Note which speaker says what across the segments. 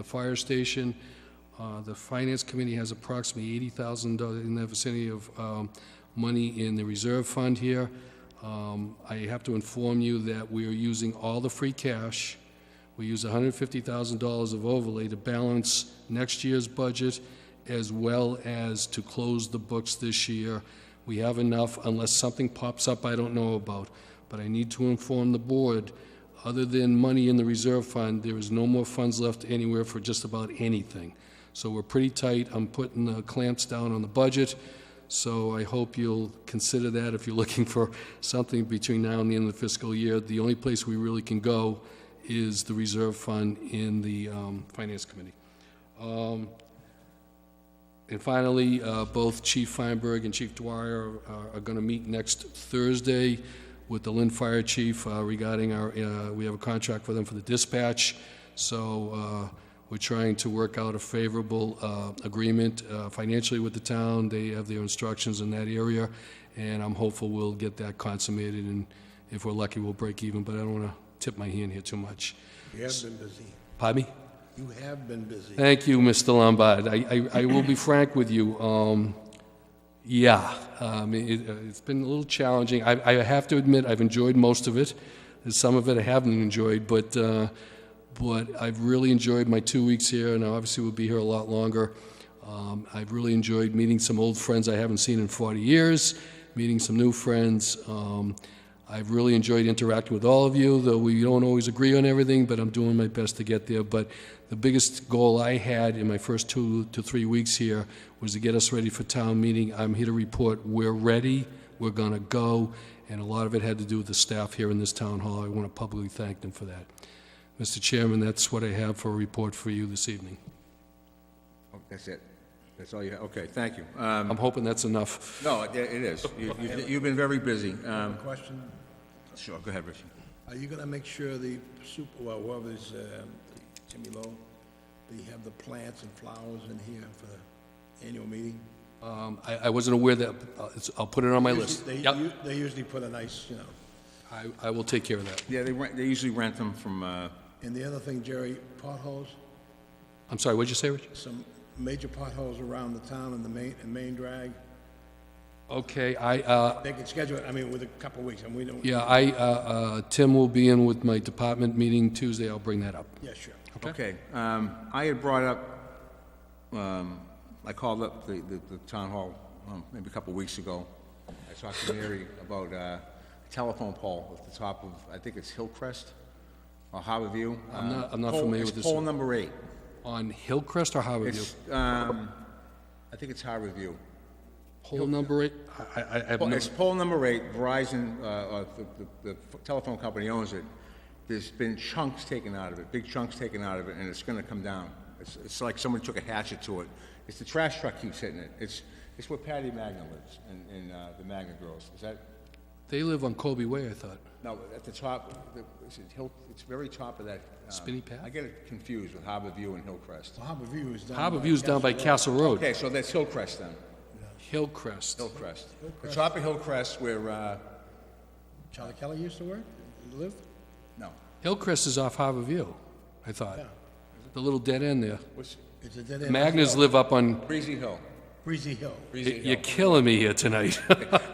Speaker 1: the fire station. Uh, The Finance Committee has approximately $80,000 in the vicinity of um, money in the reserve fund here. Um, I have to inform you that we are using all the free cash. We use $150,000 of overlay to balance next year's budget as well as to close the books this year. We have enough unless something pops up I don't know about. But I need to inform the board, other than money in the reserve fund, there is no more funds left anywhere for just about anything. So we're pretty tight. I'm putting the clamps down on the budget. So I hope you'll consider that if you're looking for something between now and the end of the fiscal year. The only place we really can go is the reserve fund in the um, Finance Committee. And finally, uh, both Chief Feinberg and Chief Dwyer are- are going to meet next Thursday with the Lynn Fire Chief uh, regarding our, uh, we have a contract with them for the dispatch, so uh, we're trying to work out a favorable uh, agreement uh, financially with the town. They have their instructions in that area, and I'm hopeful we'll get that consummated, and if we're lucky, we'll break even, but I don't want to tip my hand here too much.
Speaker 2: You have been busy.
Speaker 1: Pardon me?
Speaker 2: You have been busy.
Speaker 1: Thank you, Mr. Lombard. I, I, I will be frank with you, um, yeah, um, it, uh, it's been a little challenging. I, I have to admit, I've enjoyed most of it. There's Some of it I haven't enjoyed, but, uh, but I've really enjoyed my two weeks here, and I obviously will be here a lot longer. Um, I've really enjoyed meeting some old friends I haven't seen in 40 years, meeting some new friends. Um, I've really enjoyed interacting with all of you, though we don't always agree on everything, but I'm doing my best to get there. But the biggest goal I had in my first two to three weeks here was to get us ready for town meeting. I'm here to report, we're ready, we're going to go, and a lot of it had to do with the staff here in this town hall. I want to publicly thank them for that. Mr. Chairman, that's what I have for a report for you this evening.
Speaker 3: Oh, That's it. That's all you, have. okay, thank you. Um,
Speaker 1: I'm hoping that's enough.
Speaker 3: No, it it is. You- you- You've been very busy. Um,
Speaker 2: Question,
Speaker 3: Sure, go ahead, Richie.
Speaker 2: are you gonna make sure the super, well, whoever's, um, Jimmy Lowe, they have the plants and flowers in here for the annual meeting?
Speaker 1: Um, I I wasn't aware that, uh, it's- I'll put it on my list.
Speaker 2: They,
Speaker 1: Yep,
Speaker 2: u- they usually put a nice, you know,
Speaker 1: I- I will take care of that.
Speaker 3: Yeah, they rent, they usually rent them from, uh,
Speaker 2: and the other thing, Jerry, potholes,
Speaker 1: I'm sorry, what'd you say, Rich?
Speaker 2: some major potholes around the town and the main, and main drag.
Speaker 1: Okay, I, uh,
Speaker 2: They can schedule it, I mean, with a couple of weeks, and we don't,
Speaker 1: Yeah, I, uh, uh, Tim will be in with my department meeting Tuesday, I'll bring that up.
Speaker 2: yeah, sure.
Speaker 3: okay. Um, I had brought up, um, I called up the, the- the town hall um, maybe a couple weeks ago. I talked to Mary about uh, a telephone pole at the top of, I think it's Hillcrest or Harborview.
Speaker 1: I'm not- I'm not
Speaker 3: Uh, pole-
Speaker 1: familiar with this
Speaker 3: It's pole
Speaker 1: one.
Speaker 3: number eight.
Speaker 1: On Hillcrest or Howardview?
Speaker 3: It's, um, I think it's Harborview.
Speaker 1: Pole number eight? I, I, I have
Speaker 3: Well,
Speaker 1: no,
Speaker 3: It's poll number eight, Verizon, uh, uh, the- the the telephone company owns it. There's been chunks taken out of it, big chunks taken out of it, and it's gonna come down. It's, it's like someone took a hatchet to it. It's the trash truck keeps hitting it. It's, it's where Patty Magna lives, and, and uh, the Magna girls. Is that,
Speaker 1: they live on Colby Way, I thought.
Speaker 3: no, at the top, the- is it Hill, it's very top of that. um,
Speaker 1: Spinny Path?
Speaker 3: I get it confused with Harbor View and Hillcrest.
Speaker 2: So Harbor View is down. by
Speaker 1: Howardview's down by
Speaker 2: Castle
Speaker 1: Castle
Speaker 2: Rock.
Speaker 1: Road.
Speaker 3: Okay, so that's Hillcrest then,
Speaker 1: Hillcrest.
Speaker 3: Hillcrest. The top of Hillcrest where, uh,
Speaker 2: Charlie Kelly used to work, live?
Speaker 3: no,
Speaker 1: Hillcrest is off Howardview, I thought. The little dead end there.
Speaker 3: what's,
Speaker 2: It's a dead end.
Speaker 1: Magnus live up on,
Speaker 3: Breezy Hill.
Speaker 2: Breezy Hill.
Speaker 3: Breezy Hill.
Speaker 1: you're killing me here tonight.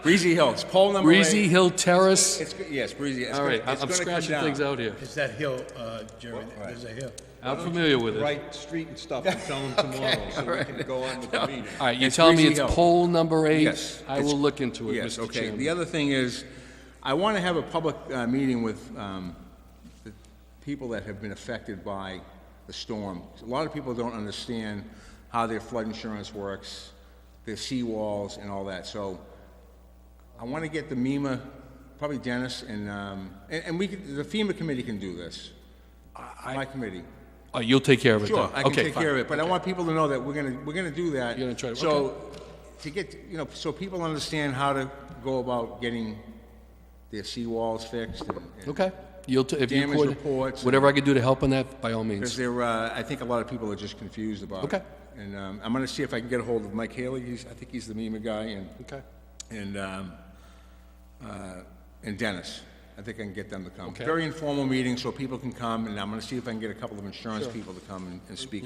Speaker 3: Breezy Hill, it's poll number eight.
Speaker 1: Breezy Hill Terrace.
Speaker 3: It's, go- yes, Breezy. It's
Speaker 1: All
Speaker 3: gonna-
Speaker 1: right, I-
Speaker 3: it's
Speaker 1: I'm
Speaker 3: gonna come
Speaker 1: scratching
Speaker 3: down.
Speaker 1: things out here.
Speaker 2: It's that hill, uh, Jerry, there's a hill.
Speaker 1: I'm familiar with it. All
Speaker 4: right street and stuff and tell them tomorrow, so we can go on with the meeting.
Speaker 1: right, you're
Speaker 3: It's
Speaker 1: telling me it's
Speaker 3: Breezy Hill.
Speaker 1: poll number eight?
Speaker 3: Yes,
Speaker 1: I
Speaker 3: it's-
Speaker 1: will look into it,
Speaker 3: Yes,
Speaker 1: Mr.
Speaker 3: okay.
Speaker 1: Chairman.
Speaker 3: The other thing is, I want to have a public uh, meeting with um, the people that have been affected by the storm. A lot of people don't understand how their flood insurance works, their seawalls and all that. So I want to get the MEMA, probably Dennis, and, um, and and we, could- the FEMA committee can do this. My committee.
Speaker 1: Oh, you'll take care of it then?
Speaker 3: Sure, I can
Speaker 1: Okay,
Speaker 3: take
Speaker 1: fine.
Speaker 3: care of it, but I want people to know that we're gonna, we're gonna do that.
Speaker 1: You're gonna try to-
Speaker 3: So, to get, you know, so people understand how to go about getting their seawalls fixed and. and-
Speaker 1: Okay. You'll, t- if you
Speaker 3: Damage
Speaker 1: could,
Speaker 3: reports and-
Speaker 1: whatever I could do to help on that, by all
Speaker 3: Because
Speaker 1: means.
Speaker 3: there, uh, I think a lot of people are just confused about it.
Speaker 1: Okay.
Speaker 3: And, um, I'm gonna see if I can get a hold of Mike Haley, he's, I think he's the MEMA guy, and,
Speaker 1: Okay.
Speaker 3: and, um, uh, and Dennis. I think I can get them to come. Very informal meeting, so people can come, and I'm gonna see if I can get a couple of insurance people to come and- and speak